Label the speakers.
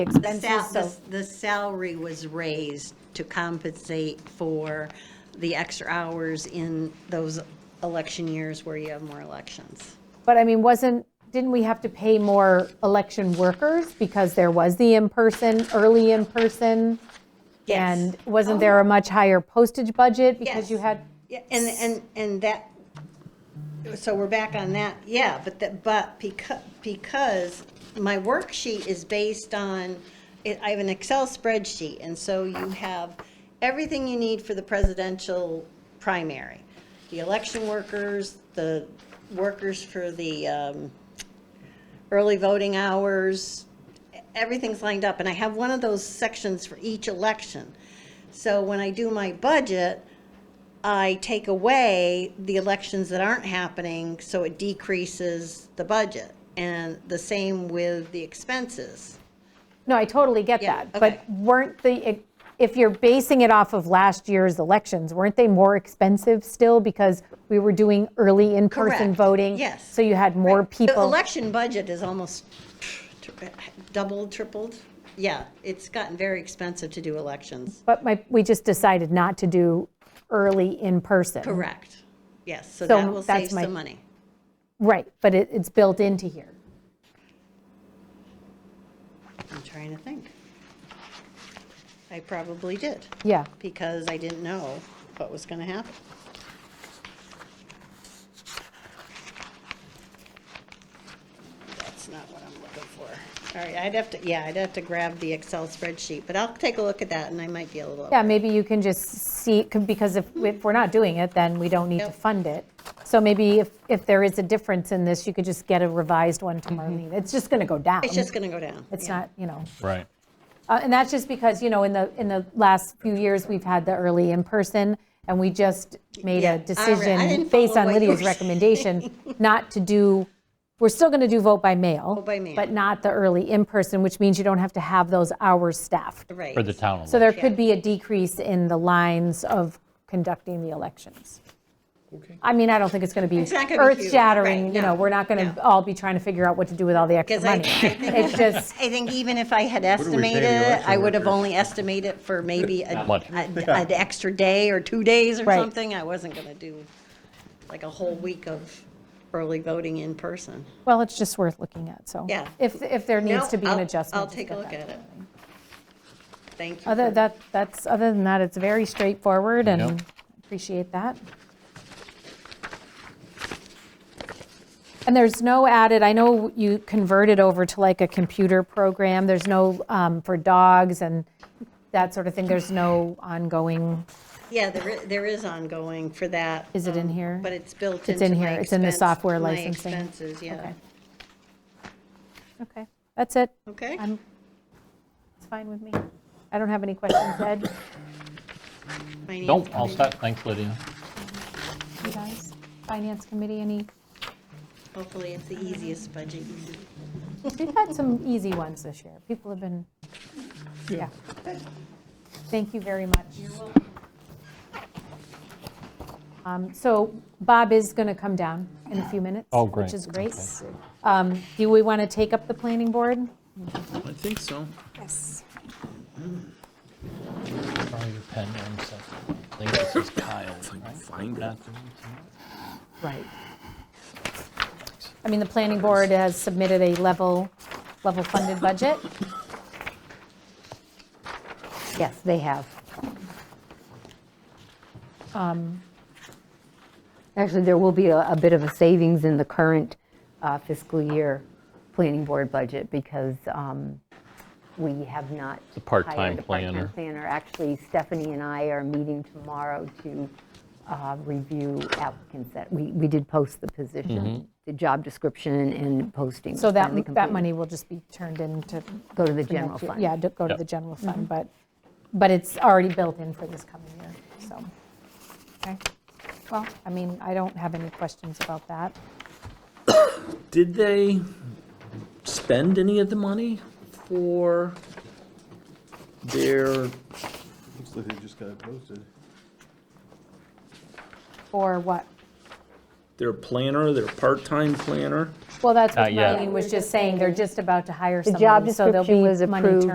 Speaker 1: The
Speaker 2: expenses,
Speaker 1: sal-
Speaker 2: so,
Speaker 1: the- the salary was raised to compensate for the extra hours in those election years where you have more elections.
Speaker 2: but I mean, wasn't, didn't we have to pay more election workers because there was the in-person, early in-person?
Speaker 1: Yes. Oh.
Speaker 2: And wasn't there a much higher postage budget because you
Speaker 1: Yes.
Speaker 2: had?
Speaker 1: Yeah, and, and, and that, so we're back on that, yeah, but that, but because, because my worksheet is based on, it- I have an Excel spreadsheet, and so you have everything you need for the presidential primary. The election workers, the workers for the, um, early voting hours, everything's lined up, and I have one of those sections for each election. So when I do my budget, I take away the elections that aren't happening, so it decreases the budget. And the same with the expenses.
Speaker 2: No, I totally get
Speaker 1: Yeah,
Speaker 2: that.
Speaker 1: okay.
Speaker 2: But weren't the, if you're basing it off of last year's elections, weren't they more expensive still because we were doing early in-person
Speaker 1: Correct,
Speaker 2: voting?
Speaker 1: yes.
Speaker 2: So you had more
Speaker 1: The
Speaker 2: people.
Speaker 1: election budget is almost tri- doubled, tripled. Yeah, it's gotten very expensive to do elections.
Speaker 2: But my, we just decided not to do early in-person.
Speaker 1: Correct. Yes,
Speaker 2: So
Speaker 1: so that will
Speaker 2: that's
Speaker 1: save
Speaker 2: my-
Speaker 1: some money.
Speaker 2: Right, but it, it's built into here.
Speaker 1: I'm trying to think. I probably did,
Speaker 2: Yeah.
Speaker 1: because I didn't know what was going to happen. That's not what I'm looking for. All right, I'd have to, yeah, I'd have to grab the Excel spreadsheet, but I'll take a look at that, and I might be a little.
Speaker 2: Yeah, maybe you can just see, c- because if, if we're not doing it, then we don't need to
Speaker 1: Yep.
Speaker 2: fund it. So maybe if, if there is a difference in this, you could just get a revised one to Marlene. It's just going to go down.
Speaker 1: Mm-hmm. It's just going to go down.
Speaker 2: It's
Speaker 1: yeah.
Speaker 2: not, you know.
Speaker 3: Right.
Speaker 2: Uh, And that's just because, you know, in the, in the last few years, we've had the early in-person, and we just made
Speaker 1: Yeah, I
Speaker 2: a
Speaker 1: re- I
Speaker 2: decision
Speaker 1: didn't
Speaker 2: based
Speaker 1: follow
Speaker 2: on
Speaker 1: what you
Speaker 2: Lydia's
Speaker 1: were
Speaker 2: recommendation not to do, we're still going to do vote by mail.
Speaker 1: by mail.
Speaker 2: But not the early in-person, which means you don't have to have those hours staffed.
Speaker 1: Right.
Speaker 3: For the town.
Speaker 2: So there could be a decrease in the lines of conducting the elections. I mean, I don't think it's going to be
Speaker 1: It's not gonna be huge,
Speaker 2: earth-shattering,
Speaker 1: right,
Speaker 2: you know,
Speaker 1: no,
Speaker 2: we're not going
Speaker 1: no.
Speaker 2: to all be trying to figure out what to do with all the extra
Speaker 1: 'Cause I-
Speaker 2: money.
Speaker 1: I think-
Speaker 2: It's just,
Speaker 1: I think even if I had
Speaker 4: do we pay
Speaker 1: estimated it,
Speaker 4: the
Speaker 1: I
Speaker 4: election
Speaker 1: would have
Speaker 4: workers?
Speaker 1: only estimated for maybe a,
Speaker 3: Not much.
Speaker 1: a- an extra day or two days or
Speaker 2: Right.
Speaker 1: something. I wasn't going to do like a whole week of early voting in person.
Speaker 2: Well, it's just worth looking at, so.
Speaker 1: Yeah.
Speaker 2: If, if there needs
Speaker 1: No,
Speaker 2: to be an
Speaker 1: I'll-
Speaker 2: adjustment.
Speaker 1: I'll
Speaker 2: just
Speaker 1: take a
Speaker 2: get
Speaker 1: look
Speaker 2: that
Speaker 1: at it.
Speaker 2: done.
Speaker 1: Thank you.
Speaker 2: Other,
Speaker 1: for-
Speaker 2: that, that's, other than that, it's very straightforward and
Speaker 3: Yep.
Speaker 2: appreciate that. And there's no added, I know you converted over to like a computer program, there's no, um, for dogs and that sort of thing, there's no ongoing,
Speaker 1: Yeah, there, i- there is ongoing for that.
Speaker 2: Is it in
Speaker 1: um,
Speaker 2: here?
Speaker 1: But it's built into
Speaker 2: It's in
Speaker 1: my
Speaker 2: here. It's in the
Speaker 1: expense-
Speaker 2: software
Speaker 1: my
Speaker 2: licensing.
Speaker 1: expenses, yeah.
Speaker 2: Okay. okay, that's it.
Speaker 1: Okay?
Speaker 2: I'm, it's fine with me. I don't have any questions, Ed,
Speaker 1: Finance
Speaker 3: Don't, all
Speaker 1: committee.
Speaker 3: set, thanks Lydia.
Speaker 2: you guys, Finance Committee, any?
Speaker 1: Hopefully, it's the easiest budget you do.
Speaker 2: We've had some easy ones this year. People have been, yeah. Thank you very much. You're welcome. Um, So Bob is going to come down in a few minutes.
Speaker 3: Oh, great.
Speaker 2: Which is great. Um, Do we want to take up the planning board?
Speaker 5: I think so.
Speaker 2: Yes.
Speaker 3: Sorry, your pen, one second. I think this is Kyle, right?
Speaker 5: Find it.
Speaker 3: Not the routine.
Speaker 2: Right. I mean, the planning board has submitted a level, level funded budget.
Speaker 6: Yes, they have. Actually, there will be a a bit of a savings in the current uh, fiscal year planning board budget because um, we have not.
Speaker 3: The part-time
Speaker 6: hired a part-time
Speaker 3: planner.
Speaker 6: Planner. Actually, Stephanie and I are meeting tomorrow to uh, review applicants that, we we did post the
Speaker 3: Mm-hmm.
Speaker 6: position, the job description and posting.
Speaker 2: So
Speaker 6: was
Speaker 2: that,
Speaker 6: finally
Speaker 2: that
Speaker 6: completed.
Speaker 2: money will just be turned into
Speaker 6: Go to the
Speaker 2: for
Speaker 6: general
Speaker 2: next year.
Speaker 6: fund. Mm-hmm.
Speaker 2: Yeah, to go to
Speaker 3: Yep.
Speaker 2: the general fund, but, but it's already built in for this coming year, so. Okay, well, I mean, I don't have any questions about that.
Speaker 5: Did they spend any of the money for their,
Speaker 4: Looks like they just got it posted.
Speaker 2: Or what?
Speaker 5: their planner, their part-time planner?
Speaker 2: Well, that's what
Speaker 3: Not yet.
Speaker 2: Marlene was just saying, they're just about to hire
Speaker 6: The job
Speaker 2: someone, so there'll be
Speaker 6: description was
Speaker 2: money
Speaker 6: approved.
Speaker 2: turned